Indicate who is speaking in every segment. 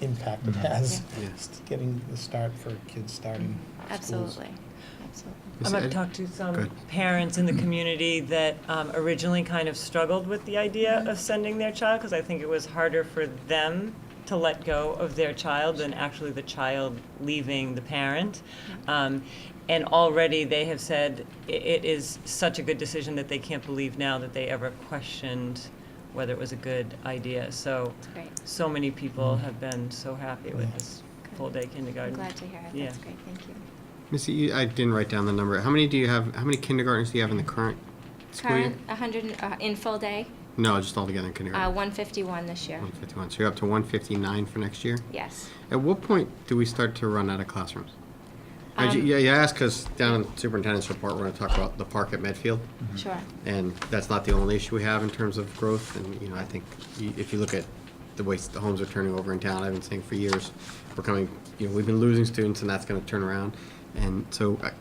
Speaker 1: impact it has,
Speaker 2: Yes.
Speaker 1: getting the start for kids starting schools.
Speaker 3: Mm-hmm.
Speaker 4: Absolutely, absolutely.
Speaker 3: Um, I've talked to
Speaker 2: Go
Speaker 3: some
Speaker 2: ahead.
Speaker 3: parents in
Speaker 4: Mm-hmm.
Speaker 3: the community that um, originally kind of struggled with the idea of sending their child, because I think it was harder for them to let go of their child than actually the child leaving the parent.
Speaker 4: Mm-hmm.
Speaker 3: Um, And already they have said i- it is such a good decision that they can't believe now that they ever questioned whether it was a good idea. So,
Speaker 4: It's great. Mm-hmm.
Speaker 3: so many people have been so happy with
Speaker 1: Yeah.
Speaker 3: this
Speaker 4: Good.
Speaker 3: full-day
Speaker 4: I'm
Speaker 3: kindergarten.
Speaker 4: glad to hear it.
Speaker 3: Yeah.
Speaker 4: That's great. Thank you.
Speaker 2: Missy, you- E, I didn't write down the number. How many do you have, how many kindergartnens do you have in the current school year?
Speaker 4: Current, 100, uh, in full day,
Speaker 2: No, just altogether in
Speaker 4: uh,
Speaker 2: kindergarten.
Speaker 4: 151 this year.
Speaker 2: 151, so you're up to 159 for next year?
Speaker 4: Yes.
Speaker 2: At what point do we start to run out of classrooms? I ju-
Speaker 4: Um,
Speaker 2: Yeah, you asked because down in superintendent's report, we're going to talk about the park at Medfield.
Speaker 4: Sure.
Speaker 2: And that's not the only issue we have in terms of growth, and, you know, I think y- if you look at the way the homes are turning over in town, I've been saying for years, we're coming, you know, we've been losing students and that's gonna turn around. And so I,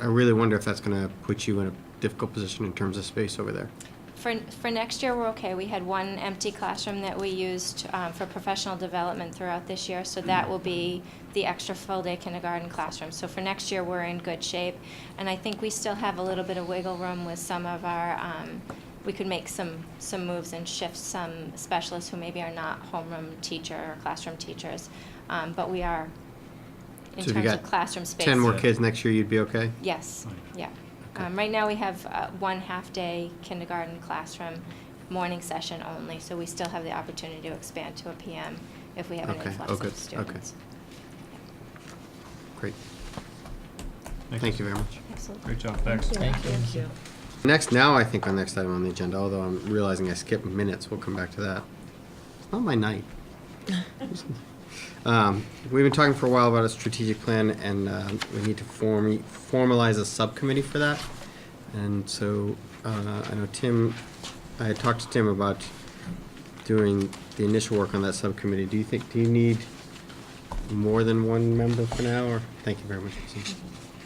Speaker 2: I really wonder if that's gonna put you in a difficult position in terms of space over there.
Speaker 4: For, for next year, we're okay. We had one empty classroom that we used um, for professional development throughout this year, so that will be the extra full-day kindergarten classroom. So for next year, we're in good shape, and I think we still have a little bit of wiggle room with some of our, um, we could make some, some moves and shift some specialists who maybe are not homeroom teacher or classroom teachers, Um, but we are, in
Speaker 2: So if you
Speaker 4: terms of
Speaker 2: got
Speaker 4: classroom space.
Speaker 2: Ten more kids next year, you'd be okay?
Speaker 4: Yes,
Speaker 5: Right.
Speaker 4: yeah.
Speaker 2: Okay.
Speaker 4: Um, Right now, we have uh, one half-day kindergarten classroom, morning session only, so we still have the opportunity to expand to a PM if we have an
Speaker 2: Okay,
Speaker 4: influx
Speaker 2: oh,
Speaker 4: of
Speaker 2: good, okay.
Speaker 4: students.
Speaker 2: Great, thank you very much.
Speaker 4: Absolutely.
Speaker 5: Great job, thanks.
Speaker 1: Thank you.
Speaker 3: Thank you.
Speaker 2: Next, now I think our next item on the agenda, although I'm realizing I skipped minutes, we'll come back to that. It's not my night. Um, We've been talking for a while about a strategic plan and uh, we need to form, formalize a subcommittee for that. And so uh, I know Tim, I had talked to Tim about doing the initial work on that subcommittee. Do you think, do you need more than one member for now or? Thank you very much. Susan.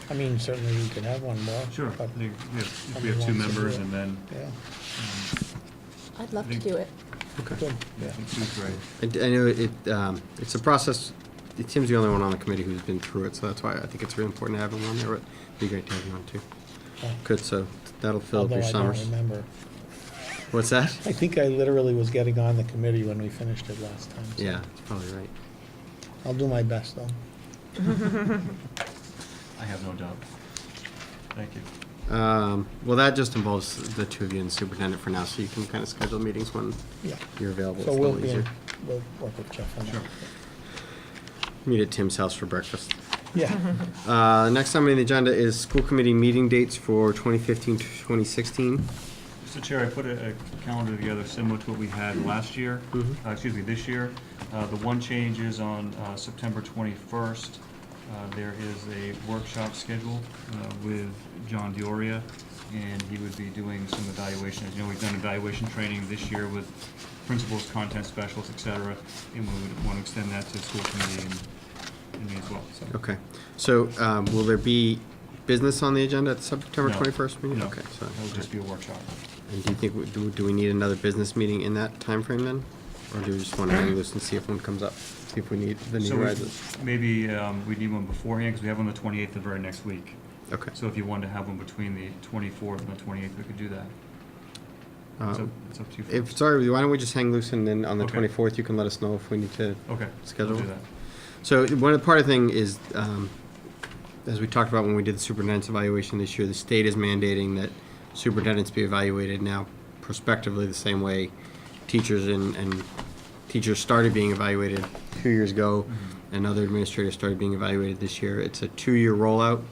Speaker 1: I mean, certainly we could have one more.
Speaker 5: Sure, I
Speaker 1: but-
Speaker 5: think we have,
Speaker 1: Somebody
Speaker 5: we
Speaker 1: wants
Speaker 5: have two
Speaker 1: to do
Speaker 5: members
Speaker 1: it.
Speaker 5: and then,
Speaker 1: Yeah,
Speaker 5: um,
Speaker 6: I'd love to
Speaker 5: Think-
Speaker 6: do it.
Speaker 2: Okay.
Speaker 1: good,
Speaker 5: I
Speaker 1: yeah.
Speaker 5: think two's great.
Speaker 2: I d- I know it, um, it's a process, Tim's the only one on the committee who's been through it, so that's why I think it's really important to have him on there, but it'd be great to have you on too.
Speaker 1: yeah.
Speaker 2: Good, so that'll fill up
Speaker 1: Although
Speaker 2: your
Speaker 1: I don't
Speaker 2: summers.
Speaker 1: remember.
Speaker 2: What's that?
Speaker 1: I think I literally was getting on the committee when we finished it last time. so
Speaker 2: Yeah, that's probably right.
Speaker 1: I'll do my best, though.
Speaker 5: I have no doubt. Thank you.
Speaker 2: Um, Well, that just involves the two of you and the superintendent for now, so you can kind of schedule meetings when
Speaker 1: Yeah.
Speaker 2: you're available. It's
Speaker 1: So
Speaker 2: a
Speaker 1: we'll
Speaker 2: little
Speaker 1: be, in-
Speaker 2: easier.
Speaker 1: we'll work with Jeff on that.
Speaker 5: Sure.
Speaker 2: Meet at Tim's house for breakfast.
Speaker 1: Yeah,
Speaker 2: Uh, Next item on the agenda is school committee meeting dates for 2015 to 2016.
Speaker 5: Mr. Chair, I put a a calendar together similar to what we had last year,
Speaker 2: Mhm.
Speaker 5: uh, excuse me, this year. Uh, The one change is on uh, September 21st. Uh, There is a workshop scheduled uh, with John Dioria, and he would be doing some evaluation. As you know, we've done evaluation training this year with principals, content specialists, et cetera, and we would want to extend that to school committee and- and me as well, so.
Speaker 2: Okay, so um, will there be business on the agenda at the September
Speaker 5: No,
Speaker 2: 21st meeting?
Speaker 5: no,
Speaker 2: Okay, so,
Speaker 5: That would just be a workshop.
Speaker 2: and do you think, we- do do we need another business meeting in that timeframe then? Or do we just want to hang loose and see if one comes up, see if we need, the need
Speaker 5: So we-
Speaker 2: rises?
Speaker 5: Maybe um, we need one beforehand, because we have one the 28th, the very next week.
Speaker 2: Okay.
Speaker 5: So if you wanted to have one between the 24th and the 28th, we could do that. It's up
Speaker 2: Um,
Speaker 5: it's up to you.
Speaker 2: If,
Speaker 5: folks.
Speaker 2: sorry, why don't we just hang loose and then on the
Speaker 5: Okay.
Speaker 2: 24th, you can let us know if we need to
Speaker 5: Okay.
Speaker 2: schedule?
Speaker 5: I'll do that.
Speaker 2: So one of the part of the thing is, um, as we talked about when we did the superintendent's evaluation this year, the state is mandating that superintendents be evaluated now prospectively the same way teachers and, and teachers started being evaluated two years ago, and other administrators started being evaluated this year. It's a two-year rollout.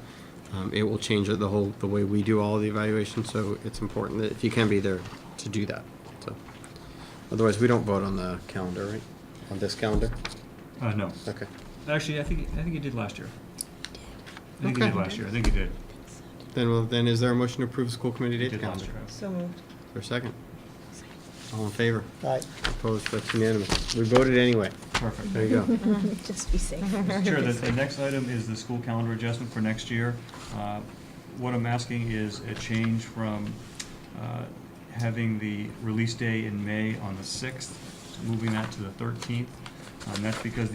Speaker 2: Um, it will change the whole the way we do all the evaluations. So it's important that if you can be there to do that. So otherwise, we don't vote on the calendar, right? On this calendar.
Speaker 5: Uh, no.
Speaker 2: Okay.
Speaker 5: Actually, I think, I think you did last year. I think you
Speaker 2: Okay.
Speaker 5: did last year. I think you did.
Speaker 2: Then, well, then is there a motion to approve the school committee
Speaker 5: You
Speaker 2: date
Speaker 5: did last
Speaker 2: calendar?
Speaker 5: year.
Speaker 3: So moved.
Speaker 2: For a second? All in favor?
Speaker 1: all right.
Speaker 2: Opposed? That's unanimous. We voted anyway.
Speaker 5: Perfect.
Speaker 2: There you go.
Speaker 6: Just be safe.
Speaker 5: Mr. Chair, the, the next item is the school calendar adjustment for next year. Uh, What I'm asking is a change from uh, having the release day in May on the 6th, moving that to the 13th. Um, that's because